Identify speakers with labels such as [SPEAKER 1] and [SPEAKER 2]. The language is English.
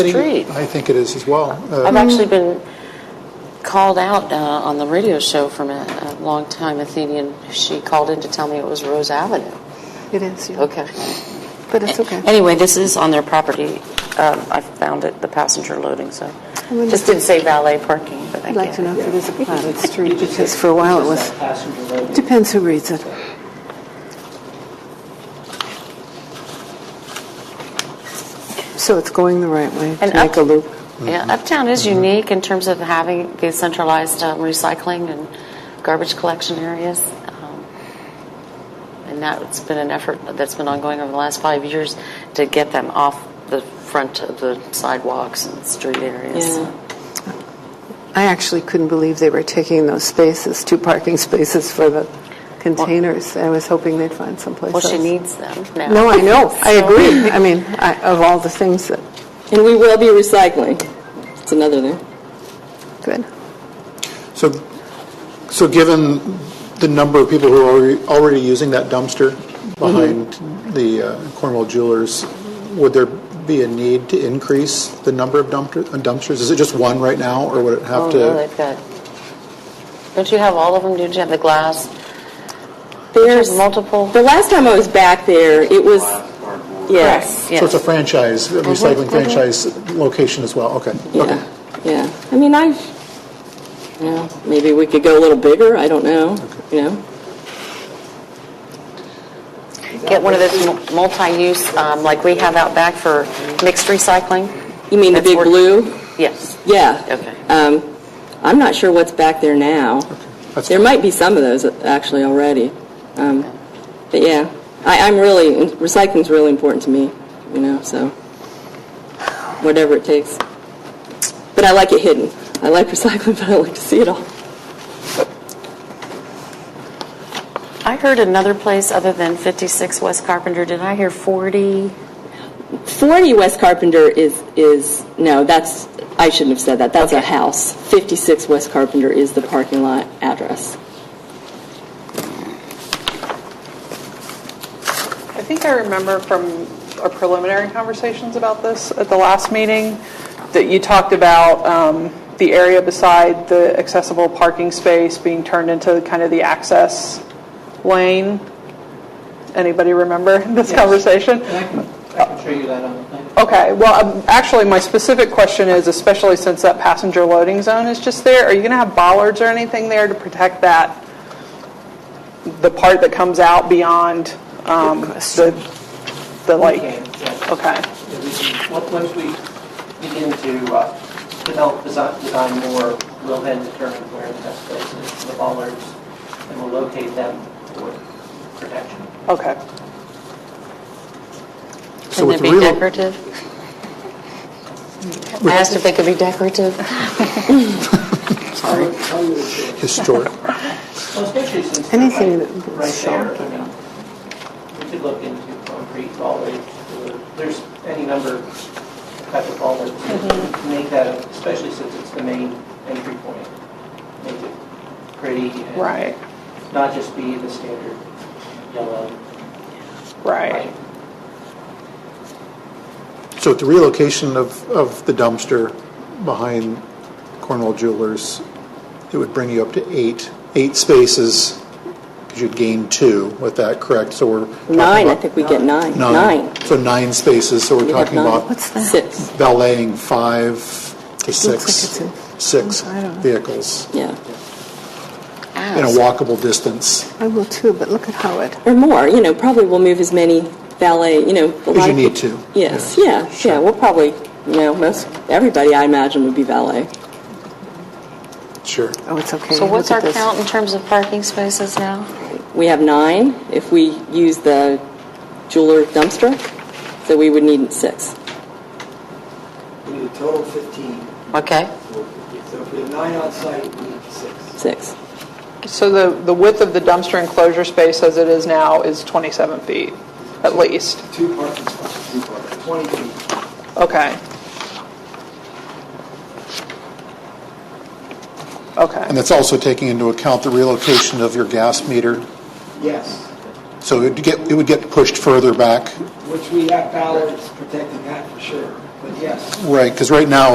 [SPEAKER 1] Treat.
[SPEAKER 2] I think it is as well. Uh,
[SPEAKER 1] I've actually been called out uh, on the radio show from a, a longtime Athenian. She called in to tell me it was Rose Avenue.
[SPEAKER 3] It is, yeah.
[SPEAKER 1] Okay.
[SPEAKER 3] But it's okay.
[SPEAKER 1] Anyway, this is on their property. Um, I found it, the passenger loading, so.
[SPEAKER 3] wouldn't-
[SPEAKER 1] Just didn't say valet parking, but I
[SPEAKER 3] I'd like
[SPEAKER 1] get
[SPEAKER 3] to know
[SPEAKER 1] it.
[SPEAKER 3] if it is a platted street, because for a while it was, depends who reads it. So it's going the right way to
[SPEAKER 1] And
[SPEAKER 3] make
[SPEAKER 1] up-
[SPEAKER 3] a loop.
[SPEAKER 1] Yeah, Uptown is
[SPEAKER 3] Mm-hmm.
[SPEAKER 1] unique in terms of having these centralized um, recycling and garbage collection areas. Um, And that's been an effort that's been ongoing over the last five years to get them off the front of the sidewalks and street areas.
[SPEAKER 3] I actually couldn't believe they were taking those spaces, two parking spaces for the containers. I was hoping they'd find someplace
[SPEAKER 1] Well,
[SPEAKER 3] else.
[SPEAKER 1] she needs them now.
[SPEAKER 3] No, I know, I agree. I mean, I- of all the things that,
[SPEAKER 4] And we will be recycling. It's another thing.
[SPEAKER 3] good.
[SPEAKER 2] So, so given the number of people who are already- already using that dumpster behind the uh, Cornwall Jewelers, would there be a need to increase the number of dumpster- uh, dumpsters? Is it just one right now, or would it have
[SPEAKER 1] Oh,
[SPEAKER 2] to?
[SPEAKER 1] no, they've got, don't you have all of them? Don't you have the glass?
[SPEAKER 4] There's
[SPEAKER 1] multiple-
[SPEAKER 4] The last time I was back there, it was yes,
[SPEAKER 2] So it's a franchise, a recycling franchise location as well. Okay. Okay.
[SPEAKER 4] yeah, yeah. I mean, I, you know, maybe we could go a little bigger. I don't know. You know,
[SPEAKER 1] Get one of those mu- multi-use, um, like we have out back for mixed recycling?
[SPEAKER 4] you mean the
[SPEAKER 1] That's
[SPEAKER 4] big
[SPEAKER 1] work-
[SPEAKER 4] blue?
[SPEAKER 1] Yes.
[SPEAKER 4] Yeah.
[SPEAKER 1] Okay.
[SPEAKER 4] Um, I'm not sure what's back there now.
[SPEAKER 2] That's
[SPEAKER 4] There might be some of those actually already. Um, but yeah, I, I'm really recycling's really important to me. You know, so whatever it takes. But I like it hidden. I like recycling, but I like to see it all.
[SPEAKER 1] I heard another place other than 56 West Carpenter, did I hear 40?
[SPEAKER 4] 40 West Carpenter is, is, no, that's, I shouldn't have said that. That's a house. 56 West Carpenter is the parking lot address.
[SPEAKER 5] I think I remember from our preliminary conversations about this at the last meeting, that you talked about um, the area beside the accessible parking space being turned into kind of the access lane. Anybody remember this conversation?
[SPEAKER 6] I can, I can show you that on the plan.
[SPEAKER 5] Okay, well, um, actually, my specific question is, especially since that passenger loading zone is just there, are you going to have bollards or anything there to protect that, the part that comes out beyond um, the, the like?
[SPEAKER 6] Okay, yeah.
[SPEAKER 5] Okay,
[SPEAKER 6] Yeah, we can- on- Once we begin to uh, develop, design design more, we'll then determine where the best place is for the bollards, and we'll locate them for protection.
[SPEAKER 5] okay.
[SPEAKER 2] So
[SPEAKER 1] Can they
[SPEAKER 2] with the
[SPEAKER 1] be
[SPEAKER 2] relo-
[SPEAKER 1] decorative? I asked if they could be decorative.
[SPEAKER 2] Historic.
[SPEAKER 6] Well, especially since they're
[SPEAKER 3] Anything
[SPEAKER 6] right-
[SPEAKER 3] that-
[SPEAKER 6] right there, I mean, we could look into concrete bollards, or there's any number of type of bollards
[SPEAKER 5] Mm-hmm.
[SPEAKER 6] to make that, especially since it's the main entry point, make it pretty. and
[SPEAKER 5] Right,
[SPEAKER 6] Not just be the standard yellow.
[SPEAKER 5] right.
[SPEAKER 2] So with the relocation of, of the dumpster behind Cornwall Jewelers, it would bring you up to eight, eight spaces, because you'd gain two with that, correct? So we're. talking
[SPEAKER 4] Nine, I
[SPEAKER 2] about-
[SPEAKER 4] think we get nine. Nine.
[SPEAKER 2] So nine spaces, so we're
[SPEAKER 4] We have
[SPEAKER 2] talking
[SPEAKER 4] nine.
[SPEAKER 2] about
[SPEAKER 4] Six,
[SPEAKER 2] valeting five to
[SPEAKER 3] like
[SPEAKER 2] six,
[SPEAKER 3] it's in-
[SPEAKER 2] six
[SPEAKER 3] I don't know.
[SPEAKER 2] vehicles
[SPEAKER 4] yeah.
[SPEAKER 2] in a walkable distance,
[SPEAKER 3] I will too, but look at Howard.
[SPEAKER 4] Or more, you know, probably we'll move as many valet, you know. a
[SPEAKER 2] as
[SPEAKER 4] lot
[SPEAKER 2] you
[SPEAKER 4] of
[SPEAKER 2] need
[SPEAKER 4] peop-
[SPEAKER 2] to.
[SPEAKER 4] Yes, yeah, yeah, we'll probably, you know, most, everybody I imagine would be valet.
[SPEAKER 2] Sure.
[SPEAKER 3] Oh, it's okay.
[SPEAKER 1] So
[SPEAKER 3] Look
[SPEAKER 1] what's
[SPEAKER 3] at
[SPEAKER 1] our
[SPEAKER 3] this.
[SPEAKER 1] count in terms of parking spaces now?
[SPEAKER 4] We have nine if we use the jeweler dumpster, so we would need six.
[SPEAKER 7] We need a total of 15.
[SPEAKER 1] Okay.
[SPEAKER 7] So if we have nine on site, we need six.
[SPEAKER 4] Six.
[SPEAKER 5] So the, the width of the dumpster enclosure space as it is now is 27 feet, at least?
[SPEAKER 7] Two parking spots. Two parking. 20 feet.
[SPEAKER 5] Okay. Okay,
[SPEAKER 2] And that's also taking into account the relocation of your gas meter,
[SPEAKER 7] Yes,
[SPEAKER 2] so it would get, it would get pushed further back
[SPEAKER 7] which we have ballards protecting that for sure. but yes.
[SPEAKER 2] Right, because right now,